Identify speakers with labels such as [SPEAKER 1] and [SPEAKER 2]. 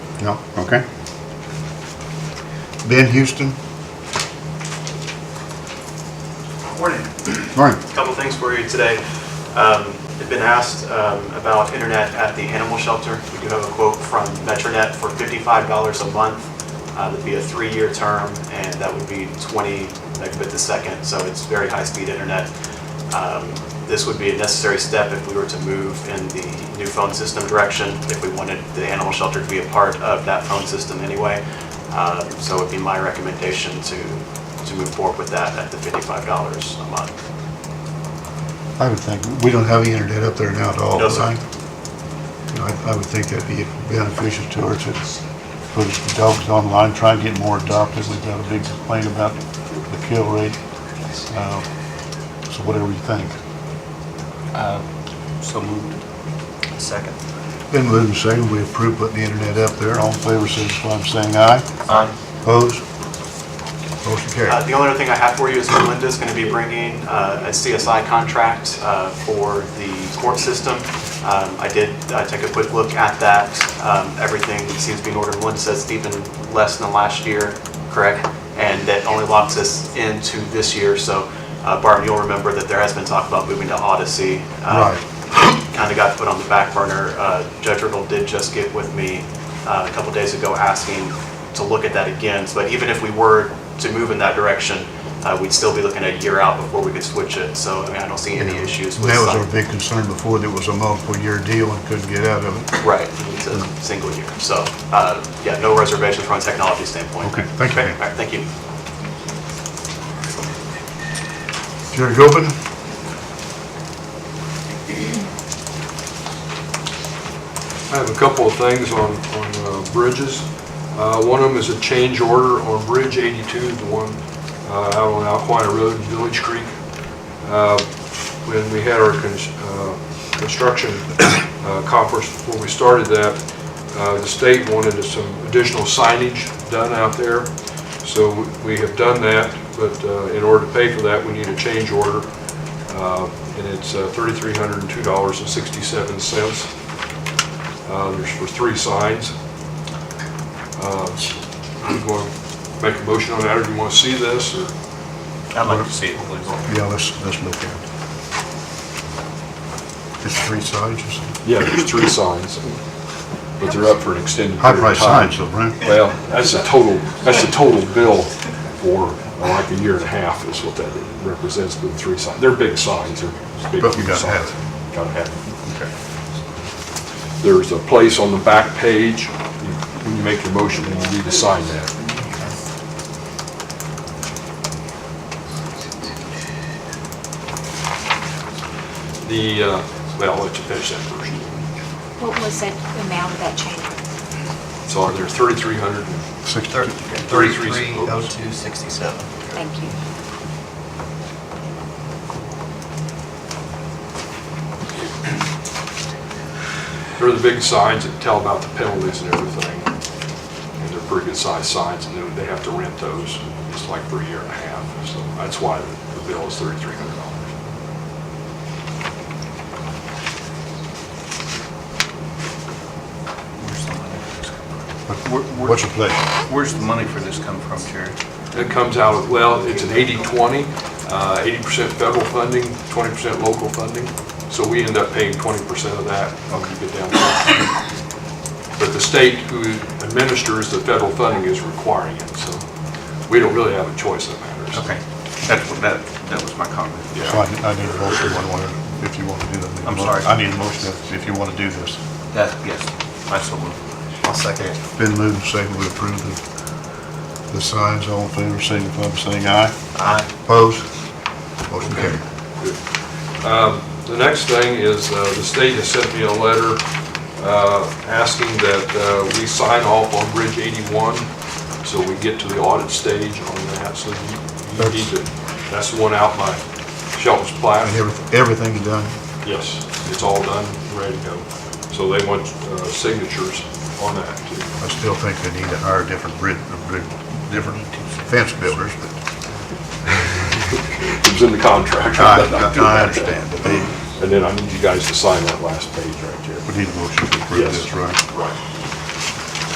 [SPEAKER 1] No, okay. Ben Houston,
[SPEAKER 2] Morning.
[SPEAKER 1] morning.
[SPEAKER 2] Couple things for you today. Um, I've been asked um, about internet at the animal shelter. We do have a quote from Metronet for $55 a month. Uh, That'd be a three-year term, and that would be 20 megabits a second, so it's very high-speed internet. Um, This would be a necessary step if we were to move in the new phone system direction, if we wanted the animal shelter to be a part of that phone system anyway. Um, So it'd be my recommendation to, to move forward with that at the $55 a month.
[SPEAKER 1] I would think, we don't have any internet up there now at all,
[SPEAKER 2] No, sir.
[SPEAKER 1] right? You know, I I would think that'd be beneficial to us, it's, put the dogs online, try and get more adopted, we've got a big complaint about the kill rate. Uh, So whatever you think.
[SPEAKER 3] So moved.
[SPEAKER 2] Second.
[SPEAKER 1] Been moved and seconded, we approve putting the internet up there, all in favor, signify by saying aye.
[SPEAKER 3] Aye.
[SPEAKER 1] Opposed? Motion carried.
[SPEAKER 2] Uh, The only other thing I have for you is Melinda's going to be bringing uh, a CSI contract uh, for the court system. Um, I did uh, take a quick look at that. Um, Everything seems to be in order. One says it's even less than last year, correct? And that only locks us into this year. So uh, Barb, you'll remember that there has been talk about moving to Odyssey. Uh,
[SPEAKER 1] Right.
[SPEAKER 2] kind of got put on the back burner. Uh, Judge Riddle did just get with me uh, a couple days ago asking to look at that again. But even if we were to move in that direction, uh, we'd still be looking at a year out before we could switch it. So I mean, I don't see any issues with.
[SPEAKER 1] That was our
[SPEAKER 2] some-
[SPEAKER 1] big concern before, that it was a multiple-year deal and couldn't get out of it.
[SPEAKER 2] Right, it's a single year. So, uh, yeah, no reservations from a technology standpoint.
[SPEAKER 1] Okay, thank you.
[SPEAKER 2] Okay, all right, Thank you.
[SPEAKER 1] Jerry Gobin?
[SPEAKER 4] I have a couple of things on, on uh, bridges. Uh, One of them is a change order on Bridge 82, the one uh, out on Alquina Road in Village Creek. Uh, When we had our cons- uh, construction uh, conference, before we started that, uh, the state wanted some additional signage done out there. So we have done that, but uh, in order to pay for that, we need a change order. Uh, And it's uh, $3,302.67. Uh, There's for three signs. Uh, You want to make a motion on that, or do you want to see this? or-
[SPEAKER 3] I'd like to see it, please.
[SPEAKER 1] Yeah, let's, let's look at it. It's three sides, you said?
[SPEAKER 4] Yeah, there's three signs, but they're up for an extended period of
[SPEAKER 1] High-priced
[SPEAKER 4] time.
[SPEAKER 1] signs, though, right?
[SPEAKER 4] Well, that's a total, that's a total bill for uh, like a year and a half is what that represents, but three signs. They're big signs, they're big
[SPEAKER 1] But you gotta have
[SPEAKER 4] signs. Gotta have it. There's a place on the back page, you- when you make your motion, you need to sign that. The, uh, well, I'll let you finish that first.
[SPEAKER 5] What was that amount of that change?
[SPEAKER 4] So they're 3,300,
[SPEAKER 1] Six,
[SPEAKER 4] Thirty-three.
[SPEAKER 3] 330267.
[SPEAKER 5] Thank you.
[SPEAKER 4] they're the big signs that tell about the penalties and everything. And they're pretty good sized signs, and then they have to rent those, it's like for a year and a half. So that's why the the bill is $3,300.
[SPEAKER 3] Where's the money for this come from?
[SPEAKER 1] what's your pleasure?
[SPEAKER 3] Where's the money for this come from, Jerry?
[SPEAKER 4] It comes out of, well, it's an 80/20, uh, 80% federal funding, 20% local funding, so we end up paying 20% of that when we get down there. But the state who administers the federal funding is requiring it, so we don't really have a choice in matters.
[SPEAKER 3] Okay, that's what, that, that was my comment.
[SPEAKER 1] So I I need a motion, one way, if you want to do that.
[SPEAKER 3] I'm sorry.
[SPEAKER 1] I need a motion if- if you want to do this.
[SPEAKER 3] That, yes, I so moved. I'll second it.
[SPEAKER 1] Been moved and seconded, we approve the, the signs, all in favor, signify by saying aye.
[SPEAKER 3] Aye.
[SPEAKER 1] Opposed? Motion carried.
[SPEAKER 4] The next thing is, uh, the state has sent me a letter uh, asking that uh, we sign off on Bridge 81, so we get to the audit stage on that, so you- you need to, that's the one out by Shelton's Platte.
[SPEAKER 1] And everything, everything's done.
[SPEAKER 4] Yes, it's all done, ready to go. So they want uh, signatures on that, too.
[SPEAKER 1] I still think they need to hire different bridge, bridge- different fence builders, but
[SPEAKER 4] It was in the contract.
[SPEAKER 1] I, I- I understand, but they,
[SPEAKER 4] And then I need you guys to sign that last page right there.
[SPEAKER 1] we need a motion to approve
[SPEAKER 4] Yes.
[SPEAKER 1] this, right?
[SPEAKER 4] Right.